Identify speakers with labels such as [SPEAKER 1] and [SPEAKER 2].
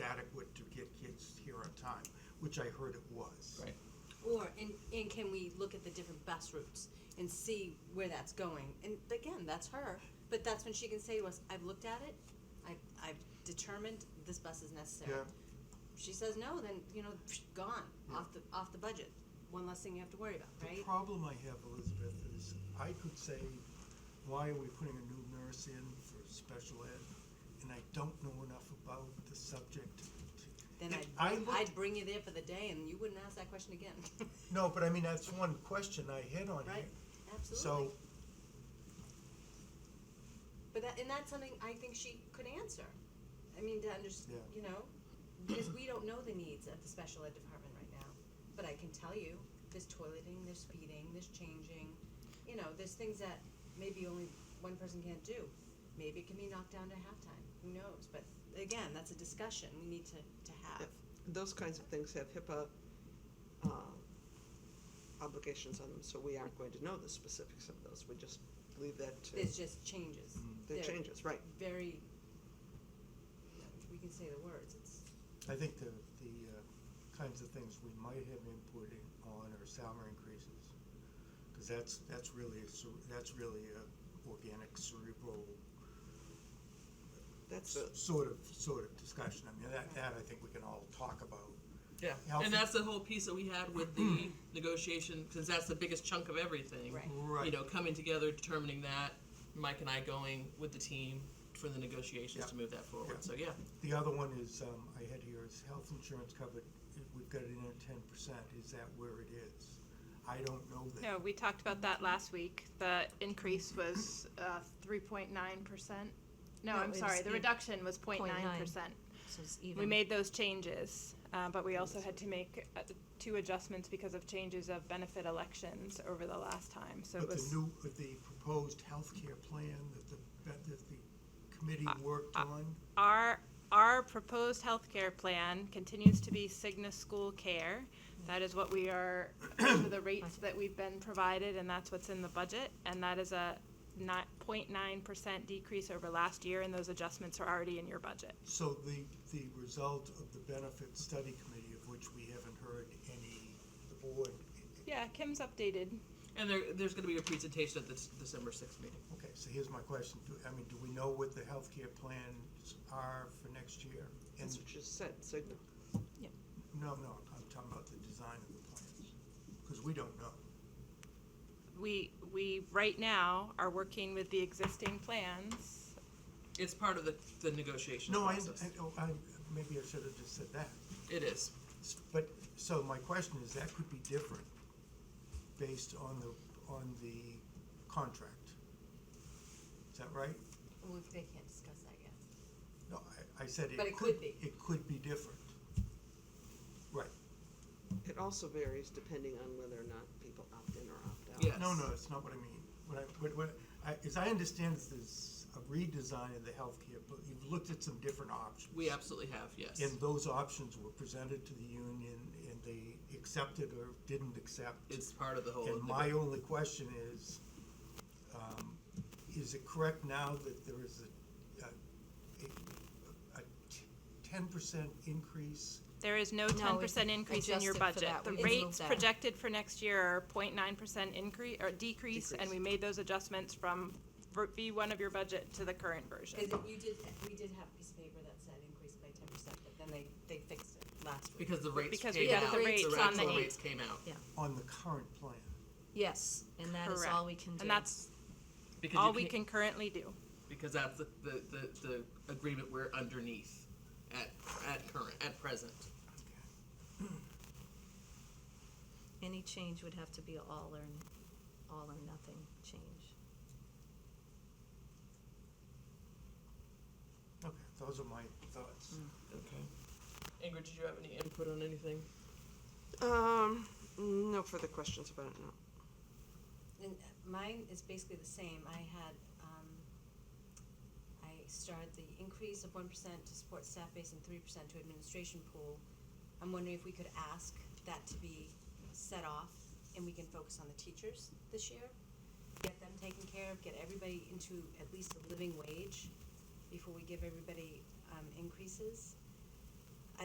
[SPEAKER 1] time, which I heard it was.
[SPEAKER 2] Right.
[SPEAKER 3] Or, and, and can we look at the different bus routes and see where that's going? And again, that's her, but that's when she can say to us, I've looked at it, I've, I've determined this bus is necessary.
[SPEAKER 1] Yeah. Hmm.
[SPEAKER 3] She says no, then, you know, psh, gone, off the, off the budget, one less thing you have to worry about,
[SPEAKER 1] The
[SPEAKER 3] right?
[SPEAKER 1] problem I have, Elizabeth, is I could say, why are we putting a new nurse in for special ed? And I don't know enough about the subject. to-
[SPEAKER 3] Then
[SPEAKER 1] If I
[SPEAKER 3] I'd,
[SPEAKER 1] looked-
[SPEAKER 3] I'd bring you there for the day and you wouldn't ask that question again,
[SPEAKER 1] No, but I mean, that's one question I hit on here.
[SPEAKER 3] right? Absolutely.
[SPEAKER 1] So,
[SPEAKER 3] But that, and that's something I think she could answer. I mean, to understand,
[SPEAKER 1] Yeah.
[SPEAKER 3] you know, because we don't know the needs of the special ed department right now. But I can tell you, there's toileting, there's feeding, there's changing, you know, there's things that maybe only one person can't do. Maybe it can be knocked down to halftime, who knows? But again, that's a discussion we need to, to have.
[SPEAKER 4] those kinds of things have HIPAA uh, obligations on them, so we aren't going to know the specifics of those. We just leave that to
[SPEAKER 3] There's just changes.
[SPEAKER 4] the
[SPEAKER 3] They're
[SPEAKER 4] changes, right?
[SPEAKER 3] Very, we can say the words, it's,
[SPEAKER 1] I think the, the uh, kinds of things we might have input in on are salary increases. Cause that's, that's really, a cere- that's really a organic cerebral
[SPEAKER 4] That's a,
[SPEAKER 1] sort of, sort of discussion. I mean, that, that I think we can all talk about.
[SPEAKER 2] Yeah,
[SPEAKER 1] Healthy. Mm.
[SPEAKER 2] and that's the whole piece that we had with the negotiation, because that's the biggest chunk of everything.
[SPEAKER 3] Right.
[SPEAKER 1] Right.
[SPEAKER 2] You know, coming together, determining that, Mike and I going with the team for the negotiations to
[SPEAKER 1] Yeah.
[SPEAKER 2] move that forward.
[SPEAKER 1] Yeah.
[SPEAKER 2] So yeah,
[SPEAKER 1] The other one is, um, I had here is health insurance covered, we've got it in at ten percent, is that where it is? I don't know that.
[SPEAKER 5] No, we talked about that last week. The increase was uh, three point nine percent. No,
[SPEAKER 6] No,
[SPEAKER 5] I'm
[SPEAKER 6] it
[SPEAKER 5] sorry,
[SPEAKER 6] was
[SPEAKER 5] the
[SPEAKER 6] eight-
[SPEAKER 5] reduction was 0.9 percent.
[SPEAKER 6] 0.9. So it's even.
[SPEAKER 5] We made those changes, uh, but we also had to make uh, two adjustments because of changes of benefit elections over the last time, so it
[SPEAKER 1] But the
[SPEAKER 5] was.
[SPEAKER 1] new, but the proposed healthcare plan that the, that that the committee worked on,
[SPEAKER 5] Our, our proposed healthcare plan continues to be Cigna School Care. That is what we are, for the rates that we've been provided, and that's what's in the budget, and that is a not, point nine percent decrease over last year, and those adjustments are already in your budget.
[SPEAKER 1] so the, the result of the benefit study committee, of which we haven't heard any, the board,
[SPEAKER 5] Yeah, Kim's updated.
[SPEAKER 2] and there, there's going to be a presentation at the s- December sixth meeting.
[SPEAKER 1] okay, so here's my question, do, I mean, do we know what the healthcare plans are for next year? And,
[SPEAKER 4] that's what you said, Cigna.
[SPEAKER 1] no, no, I'm talking about the design of the plans, because we don't know.
[SPEAKER 5] We, we, right now, are working with the existing plans.
[SPEAKER 2] It's part of the the negotiation
[SPEAKER 1] No, I,
[SPEAKER 2] process.
[SPEAKER 1] I- oh, I, maybe I should have just said that.
[SPEAKER 2] it is.
[SPEAKER 1] S- But, so my question is, that could be different based on the, on the contract. Is that right?
[SPEAKER 3] well, they can't discuss that yet.
[SPEAKER 1] No, I, I said it could.
[SPEAKER 3] But it could be.
[SPEAKER 1] It could be different. Right.
[SPEAKER 4] It also varies depending on whether or not people opt in or opt out.
[SPEAKER 2] Yes.
[SPEAKER 1] No, no, that's not what I mean. What I, what, what, I, as I understand this, there's a redesign of the healthcare, but you've looked at some different options.
[SPEAKER 2] We absolutely have yes.
[SPEAKER 1] And those options were presented to the union and they accepted or didn't accept.
[SPEAKER 2] it's part of the whole.
[SPEAKER 1] And my only question is, um, is it correct now that there is a, a, a ten percent increase?
[SPEAKER 5] There is no
[SPEAKER 6] No,
[SPEAKER 5] ten
[SPEAKER 6] it's
[SPEAKER 5] percent increase in your
[SPEAKER 6] adjusted for
[SPEAKER 5] budget.
[SPEAKER 6] that.
[SPEAKER 5] The
[SPEAKER 6] We moved
[SPEAKER 5] rates
[SPEAKER 6] that.
[SPEAKER 5] projected for next year are 0.9 percent increase, or decrease, and
[SPEAKER 2] Decrease.
[SPEAKER 5] we made those adjustments from ver- V one of your budget to the current version.
[SPEAKER 3] Cause it- you did, we did have a piece of paper that said increase by ten percent, but then they, they fixed it last week.
[SPEAKER 2] because the rates
[SPEAKER 5] Because we
[SPEAKER 2] came
[SPEAKER 6] got
[SPEAKER 2] out.
[SPEAKER 6] the rates
[SPEAKER 2] the
[SPEAKER 5] on
[SPEAKER 2] actual
[SPEAKER 5] the eighth.
[SPEAKER 2] rates came out
[SPEAKER 1] On the current plan.
[SPEAKER 6] Yes, and that is all we can do.
[SPEAKER 5] And that's
[SPEAKER 2] because
[SPEAKER 5] all
[SPEAKER 2] you
[SPEAKER 5] we
[SPEAKER 2] can't-
[SPEAKER 5] can currently do.
[SPEAKER 2] because that's the, the, the, the agreement we're underneath at, at current, at present.
[SPEAKER 6] Any change would have to be all or, n- all or nothing change.
[SPEAKER 1] Okay, those are my thoughts.
[SPEAKER 2] Okay. Ingrid, did you have any input on anything?
[SPEAKER 4] Um, no further questions about it, no.
[SPEAKER 3] And uh, mine is basically the same, I had, um, I started the increase of one percent to support staff base and three percent to administration pool. I'm wondering if we could ask that to be set off and we can focus on the teachers this year? Get them taken care of, get everybody into at least a living wage before we give everybody, um, increases?